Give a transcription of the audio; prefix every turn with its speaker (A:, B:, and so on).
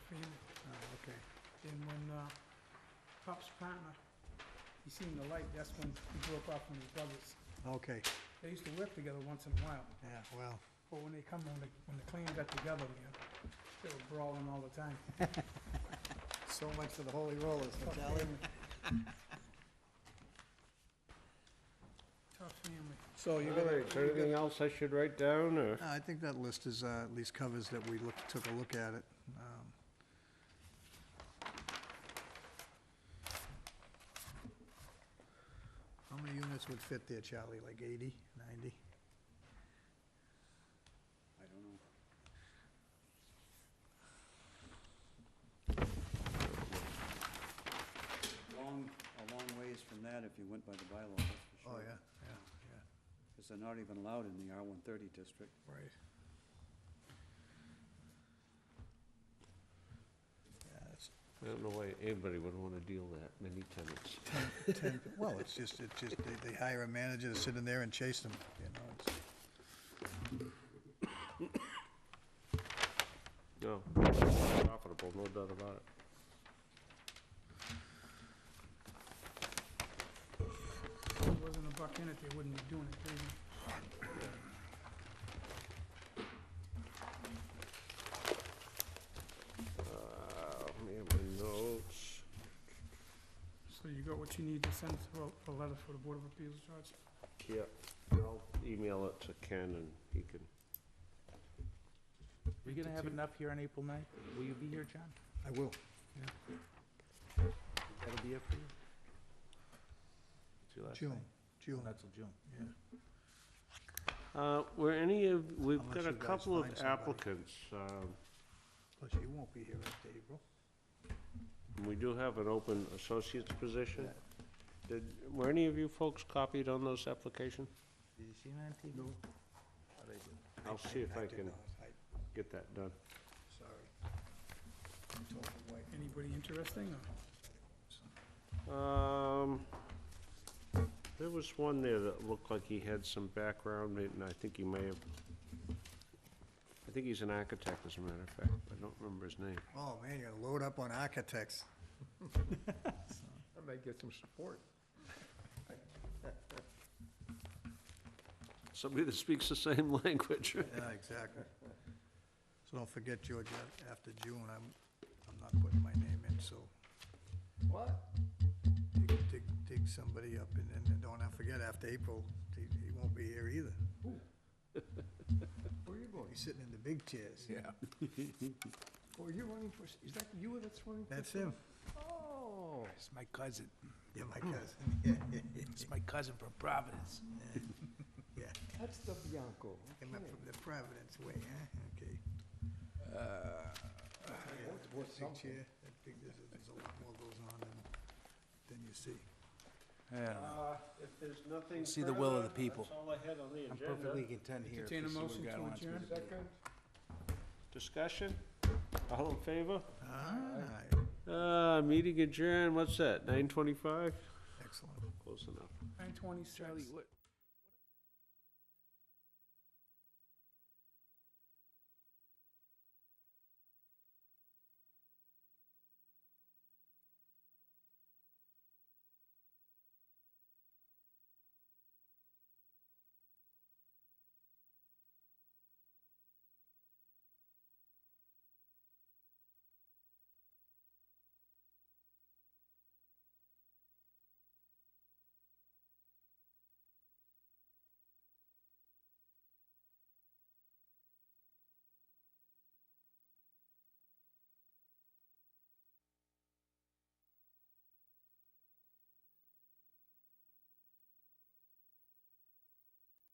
A: Oh,
B: uh, Pop's partner, he seen the light, that's when he broke off from his brothers.
A: Okay,
B: They used to work together once in a while,
A: yeah, well,
B: but when they come, when the, when the clan got together again, they were brawling all the time.
A: so much for the holy rollers, huh, Charlie?
B: Tough family.
A: So you're
C: All
A: gonna,
C: right, is there anything else I should write down, or?
A: No, I think that list is, uh, at least covers that we looked, took a look at it. Um, How many units would fit there, Charlie, like 80, 90?
D: I don't know. Long, a long ways from that if you went by the bylaw, that's for
A: Oh,
D: sure.
A: yeah, yeah, yeah,
D: Because they're not even allowed in the R-130 district.
A: right. Yeah, it's
C: I don't know why anybody would want to deal that many tenants.
A: 10, well, it's just, it's just, they, they hire a manager to sit in there and chase them, you know, it's,
C: No, profitable, no doubt about it.
B: If there wasn't a buck in it, they wouldn't be doing it, they would
C: Uh, man, my notes.
B: So you got what you need to send for a letter for the Board of Appeals, George?
C: Yep, I'll email it to Ken and he can,
E: Are you gonna have enough here on April ninth? Will you be here, John?
A: I will.
E: That'll be it for you? It's your last
A: June,
E: night?
A: June,
E: Not till June.
A: yeah.
C: uh, were any of, we've
A: Unless
C: got a
A: you guys
C: couple of
A: find somebody.
C: applicants. Um,
A: Plus, you won't be here after April.
C: we do have an open associate's position. Did, were any of you folks copied on those application?
E: Did you see me on TV?
A: No.
E: Thought I did.
C: I'll see if I
A: did
C: can
A: not. I-
C: get that done.
A: Sorry. I told the wife.
B: Anybody interesting, or?
C: Um, there was one there that looked like he had some background, and I think he may have, I think he's an architect, as a matter of fact, but I don't remember his name.
A: Oh, man, you're gonna load up on architects.
F: I may get some support.
C: Somebody that speaks the same language.
A: Yeah, exactly. So don't forget, George, a- after June, I'm, I'm not putting my name in, so
F: What?
A: dig, dig, dig somebody up, and then, and don't forget, after April, he, he won't be here either.
F: Where are you going?
A: He's sitting in the big chairs.
F: Yeah. Or you running for, is that you that's running? for-
A: That's him.
F: Oh.
E: It's my cousin.
A: Yeah, my cousin, yeah, yeah, yeah,
E: It's my cousin from Providence.
A: yeah.
F: That's the Bianco.
A: Came up from the Providence way, huh? Okay. Yeah,
F: Worth- worth
A: Big
F: Uh, something.
A: chair, that big, there's, there's a lot more goes on than, than you see.
E: Yeah.
C: Uh, If there's nothing
E: See the will of the further, people. that's
C: all I had on the
E: I'm perfectly content here. if
B: Entertain a
E: this is what
B: motion
E: God
B: to
E: wants me
B: adjourn?
E: do.
C: Discussion? All in favor?
A: Ah,
C: Uh, meeting adjourned, what's that, nine twenty-five?
A: excellent.
C: Close enough.
B: Nine twenty-six.
E: what?